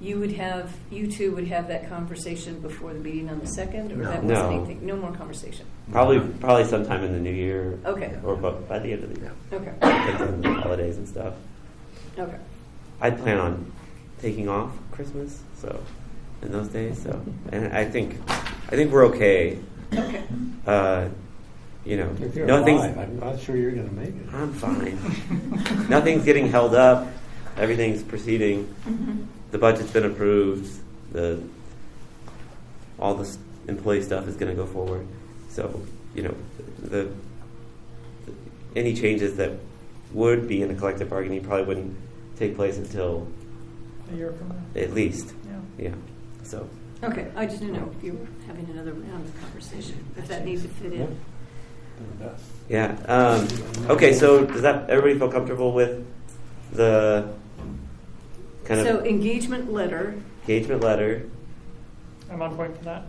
you would have, you two would have that conversation before the meeting on the second, or that was No. anything? No more conversation? Probably, probably sometime in the new year. Okay. Or bu- by the end of the year, Okay, like around the holidays and stuff. okay. I plan on taking off Christmas, so in those days. So, and I think, I think we're okay. Okay. Uh, you know, If you're nothing's. alive, I'm not sure you're going to make it. I'm fine. Nothing's getting held up. Everything's proceeding. Mhm. The budget's been approved. The all this employee stuff is going to go forward. So you know, the, the any changes that would be in a collective bargaining probably wouldn't take place until A year from now. at least Yeah. yeah. So Okay, I just didn't know if you were having another round of conversation, if that needs to fit in. yeah. Um, okay. So does that everybody feel comfortable with the kind So of engagement letter, engagement letter? I'm on point for that.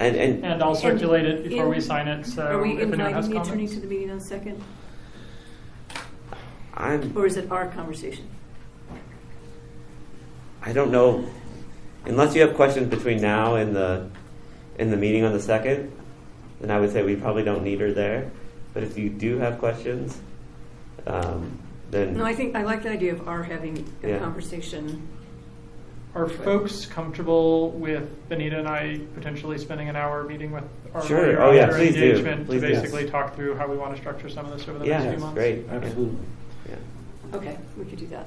And, and And I'll circulate it before in- we sign it, are so we if anyone has inviting the attorney comments. to the meeting on the second, I'm or is it our conversation? I don't know. Unless you have questions between now and the and the meeting on the second, then I would say we probably don't need her there. But if you do have questions, um, then No, I think, I like the idea of our having a Yeah. conversation. Are folks comfortable with Benita and I potentially spending an hour meeting with our Sure. lawyer Oh, yeah, after please do. engagement Please to do. basically talk through how we want to structure some of this over the yeah, next few that's months? great. Yeah. Absolutely. Yeah. Okay, we could do that.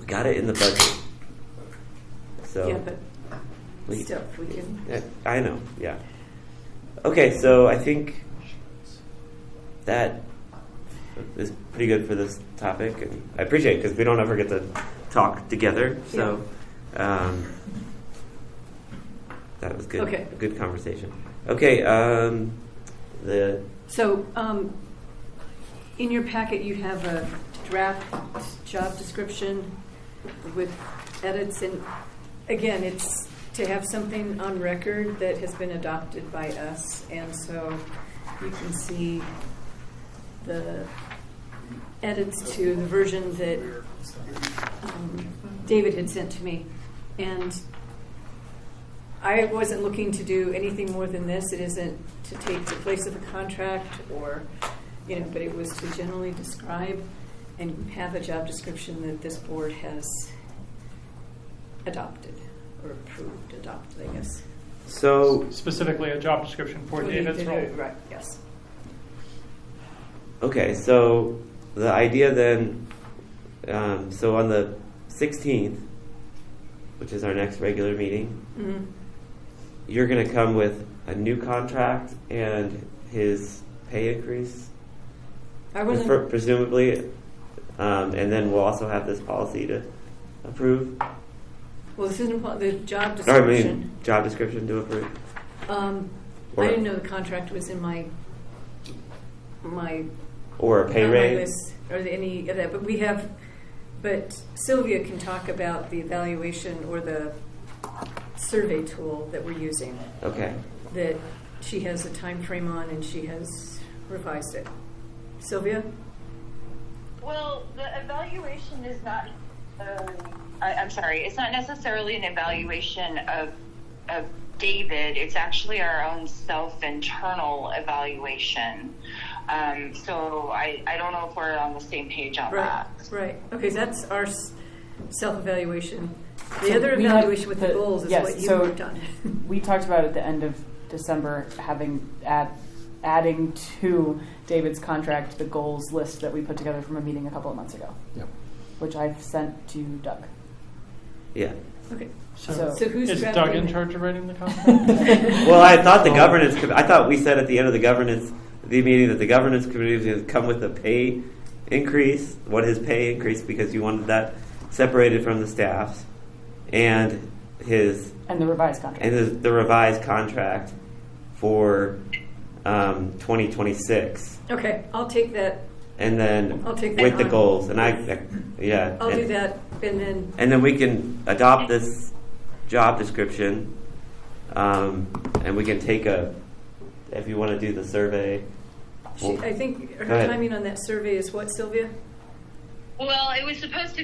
We got it in the budget. So Yeah, but we- still, we can. Yeah, I know. Yeah. Okay, so I think that is pretty good for this topic, and I appreciate it because we don't ever get to talk together. So um, that was good. Okay. Good conversation. Okay. Um, the So, um, in your packet, you have a draft job description with edits, and again, it's to have something on record that has been adopted by us, and so you can see the edits to the version that um, David had sent to me, and I wasn't looking to do anything more than this. It isn't to take the place of a contract or, you know, but it was to generally describe and have a job description that this board has adopted or approved, adopted, I guess. so Specifically, a job description for Would be David's the- role. Right, yes. Okay, so the idea then, um, so on the 16th, which is our next regular meeting, Mhm. you're going to come with a new contract and his pay increase, I pre- wasn't, presumably, um, and then we'll also have this policy to approve, well, this isn't, part- the job or I description. mean, job description to approve. Um, Or- I didn't know the contract was in my, my Or a pay Not my raise. list Or the- any of that, but we have, but Sylvia can talk about the evaluation or the survey tool that we're using, Okay, that she has a time frame on and she has revised it. Sylvia? Well, the evaluation is not. Uh, I, I'm sorry, it's not necessarily an evaluation of of David. It's actually our own self internal evaluation. Um, so I, I don't know if we're on the same page on Right, Ah. that. right. Okay, so that's our s- self-evaluation. The So other we have evaluation with the the- goals is yes, what you so- worked on. We talked about at the end of December having add, adding to David's contract the goals list that we put together from a meeting a couple of months ago, Yep. which I've sent to Doug. yeah. Okay, So- so who's Is Doug drafting in it? charge of writing the contract? Well, I thought the governance, com- I thought we said at the end of the governance, the meeting that the governance committee was going to come with a pay increase, what his pay increase, because you wanted that separated from the staff's, and his, And the revised contract. and his, the revised contract for um, 2026. Okay, I'll take that, And then I'll take that with the on. goals, and I, I- yeah. I'll and- do that, and then, and then we can adopt this job description, um, and we can take a, if you want to do the survey. she- I think her Go ahead. timing on that survey is what, Sylvia? Well, it was supposed to be.